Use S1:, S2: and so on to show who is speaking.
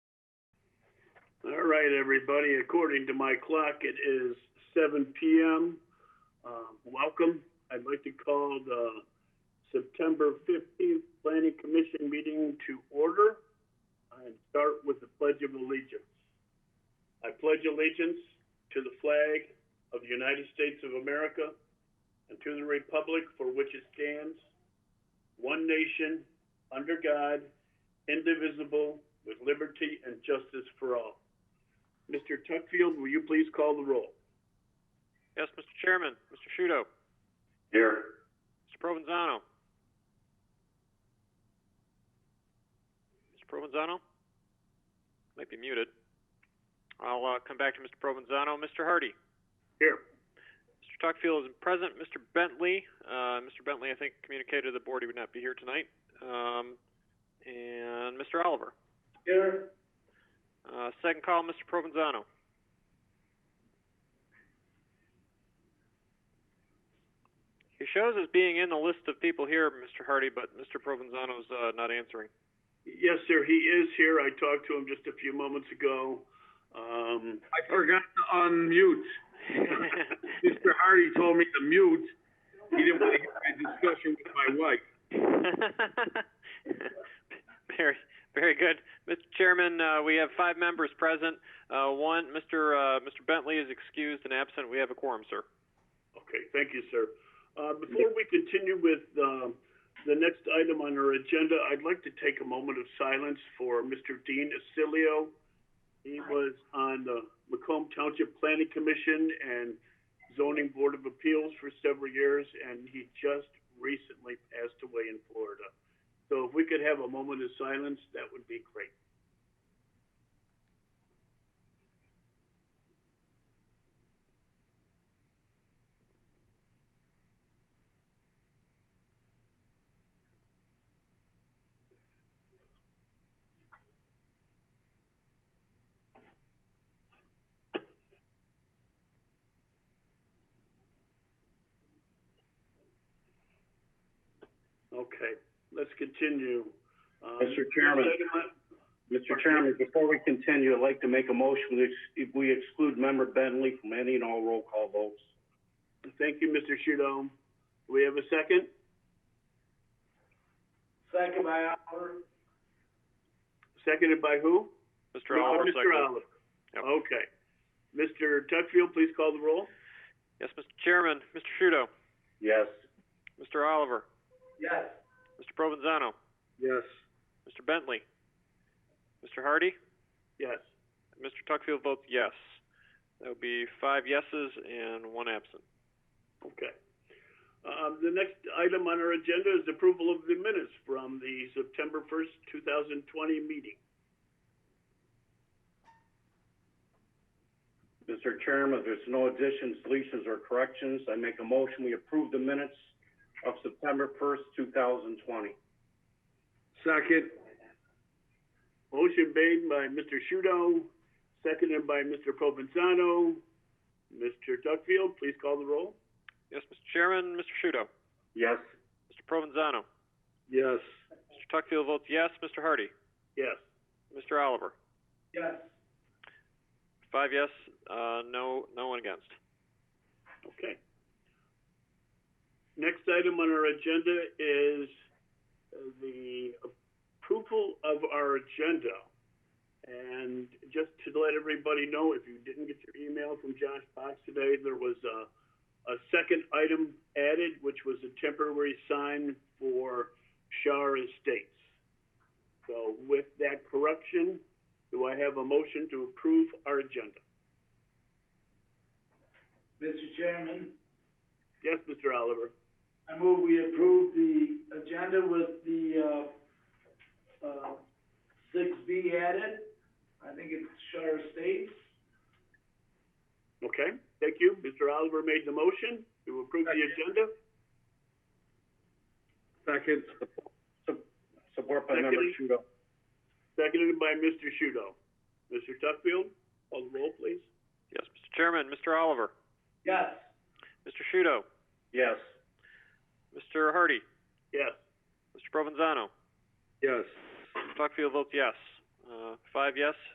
S1: All right, everybody. According to my clock, it is 7 p.m. Uh, welcome. I'd like to call the September 15th Planning Commission meeting to order and start with the Pledge of Allegiance. I pledge allegiance to the flag of the United States of America and to the republic for which it stands, one nation, under God, indivisible, with liberty and justice for all. Mr. Tuckfield, will you please call the roll?
S2: Yes, Mr. Chairman. Mr. Shudo.
S1: Here.
S2: Mr. Provenzano. Mr. Provenzano? Might be muted. I'll uh, come back to Mr. Provenzano. Mr. Hardy.
S1: Here.
S2: Mr. Tuckfield isn't present. Mr. Bentley. Uh, Mr. Bentley, I think, communicated to the board he would not be here tonight. Um, and Mr. Oliver.
S1: Here.
S2: Uh, second call, Mr. Provenzano. He shows as being in the list of people here, Mr. Hardy, but Mr. Provenzano's uh, not answering.
S1: Yes, sir. He is here. I talked to him just a few moments ago. Um,
S3: I forgot to unmute. Mr. Hardy told me to mute. He didn't want to hear my discussion with my wife.
S2: very, very good, Mr. Chairman. Uh, we have five members present. Uh, one, Mr. Uh, Mr. Bentley is excused and absent. We have a quorum, sir.
S1: Okay, thank you, sir. Uh, Before we continue with um, the next item on our agenda, I'd like to take a moment of silence for Mr. Dean Acilio. He was on the Macomb Township Planning Commission and Zoning Board of Appeals for several years, and he just recently passed away in Florida. So if we could have a moment of silence, that would be great. Okay, let's continue. Um,
S4: Mr. Chairman.
S1: next item on-
S4: Mr. Chairman, before we continue, I'd like to make a motion that ex- if we exclude member Bentley from any and all roll call votes.
S1: Thank you, Mr. Shudo. Do we have a second?
S4: Second by Oliver.
S1: Seconded by who?
S2: Mr.
S1: No,
S2: Oliver,
S1: Mr.
S2: second.
S1: Oliver.
S2: Yep.
S1: Okay. Mr. Tuckfield, please call the roll.
S2: Yes, Mr. Chairman. Mr. Shudo.
S4: Yes.
S2: Mr. Oliver.
S4: Yes.
S2: Mr. Provenzano.
S1: Yes.
S2: Mr. Bentley. Mr. Hardy.
S1: Yes.
S2: Mr. Tuckfield votes yes. That would be five yeses and one absent.
S1: Okay. Um, the next item on our agenda is approval of the minutes from the September 1st, 2020 meeting.
S4: Mr. Chairman, if there's no additions, deletions, or corrections, I make a motion we approve the minutes of September 1st, 2020.
S3: Second,
S1: Motion made by Mr. Shudo, seconded by Mr. Provenzano. Mr. Tuckfield, please call the roll.
S2: Yes, Mr. Chairman. Mr. Shudo.
S4: Yes.
S2: Mr. Provenzano.
S3: yes.
S2: Mr. Tuckfield votes yes. Mr. Hardy.
S1: Yes.
S2: Mr. Oliver.
S4: Yes.
S2: Five yes, uh, no, no one against.
S1: Okay. Next item on our agenda is uh, the approval of our agenda. And just to let everybody know, if you didn't get your email from Josh Fox today, there was a, a second item added, which was a temporary sign for Shar Estates. So with that correction, do I have a motion to approve our agenda?
S5: Mr. Chairman,
S1: Yes, Mr. Oliver?
S5: I move we approve the agenda with the, uh, uh, six B added. I think it's Shar Estates.
S1: Okay, thank you. Mr. Oliver made the motion to approve the agenda,
S3: Second,
S4: Support by member
S1: Second.
S4: Shudo.
S1: seconded by Mr. Shudo. Mr. Tuckfield, call the roll, please.
S2: Yes, Mr. Chairman, Mr. Oliver,
S5: Yes.
S2: Mr. Shudo,
S4: Yes.
S2: Mr. Hardy,
S1: Yes,
S2: Mr. Provenzano,
S3: yes.
S2: Tuckfield votes yes. Uh, five yes,